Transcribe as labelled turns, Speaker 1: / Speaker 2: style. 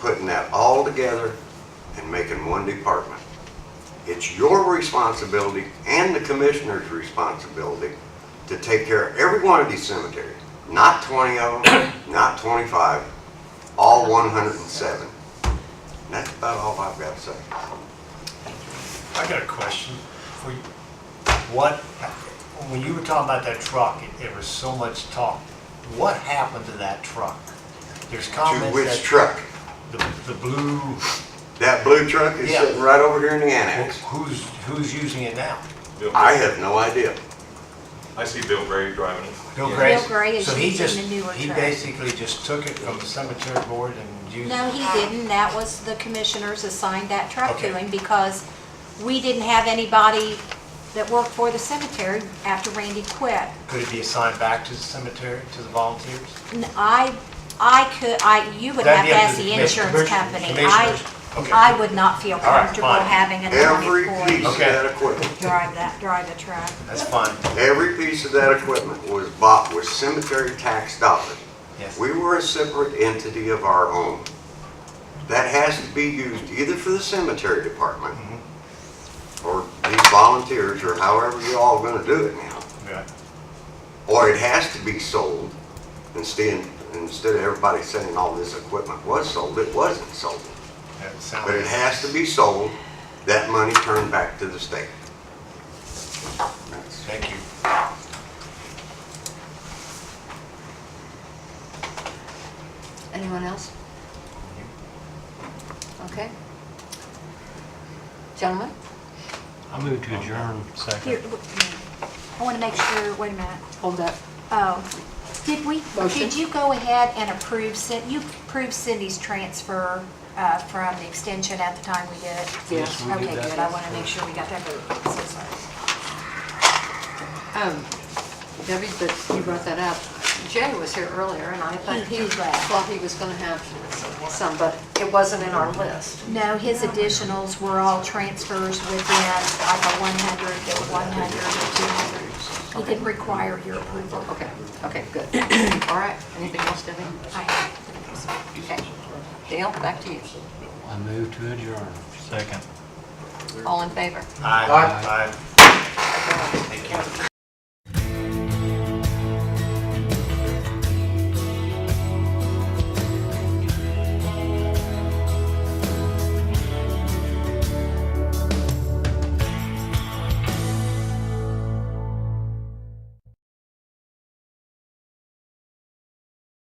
Speaker 1: putting that all together and making one department. It's your responsibility and the commissioner's responsibility to take care of every one of these cemeteries. Not 20 of them, not 25, all 107. And that's about all I've got to say.
Speaker 2: I got a question for you. What, when you were talking about that truck, it- there was so much talk. What happened to that truck? There's
Speaker 1: To
Speaker 2: comments that.
Speaker 1: which truck?
Speaker 2: The, the blue,
Speaker 1: That blue truck is
Speaker 2: Yeah.
Speaker 1: sitting right over here in the annex.
Speaker 2: who's, who's using it now?
Speaker 3: Bill
Speaker 1: I
Speaker 3: Gray.
Speaker 1: have no idea.
Speaker 3: I see Bill Gray driving it.
Speaker 2: Bill
Speaker 3: Yeah.
Speaker 2: Gray?
Speaker 4: Bill Gray is
Speaker 2: So he
Speaker 4: using
Speaker 2: just-
Speaker 4: the newer
Speaker 2: He
Speaker 4: truck.
Speaker 2: basically just took it from the cemetery board and used.
Speaker 4: No, he didn't. That was the commissioners assigned that truck to
Speaker 2: Okay.
Speaker 4: him because we didn't have anybody that worked for the cemetery after Randy quit.
Speaker 2: Could it be assigned back to the cemetery, to the volunteers?
Speaker 4: And I, I could, I, you would have
Speaker 2: That'd be
Speaker 4: to
Speaker 2: up
Speaker 4: ask
Speaker 2: to
Speaker 4: the
Speaker 2: the
Speaker 4: insurance
Speaker 2: commission-
Speaker 4: company. I,
Speaker 2: commissioners. Okay.
Speaker 4: I would not feel
Speaker 2: right,
Speaker 4: comfortable
Speaker 2: fine.
Speaker 4: having an
Speaker 1: Every
Speaker 4: employee
Speaker 1: piece of
Speaker 2: Okay.
Speaker 1: that equipment,
Speaker 4: drive that, drive the truck.
Speaker 2: That's fine,
Speaker 1: every piece of that equipment was bought with cemetery tax dollars.
Speaker 2: yes.
Speaker 1: We were a separate entity of our own. That has to be used either for the cemetery department or these volunteers or however you all gonna do it now.
Speaker 2: Yeah.
Speaker 1: Or it has to be sold instead, instead of everybody saying all this equipment was sold, it wasn't sold.
Speaker 2: That sounds-
Speaker 1: But it has to be sold, that money turned back to the state. That's-
Speaker 2: Thank you.
Speaker 5: Anyone else? Okay. Gentlemen?
Speaker 6: I move to adjourn. Second.
Speaker 4: Here, w- I want to make sure, wait a minute.
Speaker 5: Hold up.
Speaker 4: Oh, did we,
Speaker 5: Motion.
Speaker 4: did you go ahead and approve, Cin- you approved Cindy's transfer uh, from the extension at the time we did it?
Speaker 5: Yes,
Speaker 6: we did
Speaker 4: Okay,
Speaker 6: that.
Speaker 4: good, I want to make sure we got that vote, so sorry.
Speaker 5: Um, Debbie, but you brought that up. Jay was here earlier and I thought
Speaker 4: He-
Speaker 5: he,
Speaker 4: he left.
Speaker 5: thought he was gonna have some, but it wasn't in our list.
Speaker 4: No, his additionals were all transfers within like a 100, to 100, or 200. He didn't require your approval.
Speaker 5: Okay, okay, good. All right, anything else, Debbie?
Speaker 4: I-
Speaker 5: Okay. Dale, back to you.
Speaker 6: I move to adjourn. Second.
Speaker 5: All in favor?
Speaker 2: Aye. Aye.
Speaker 5: Thank you.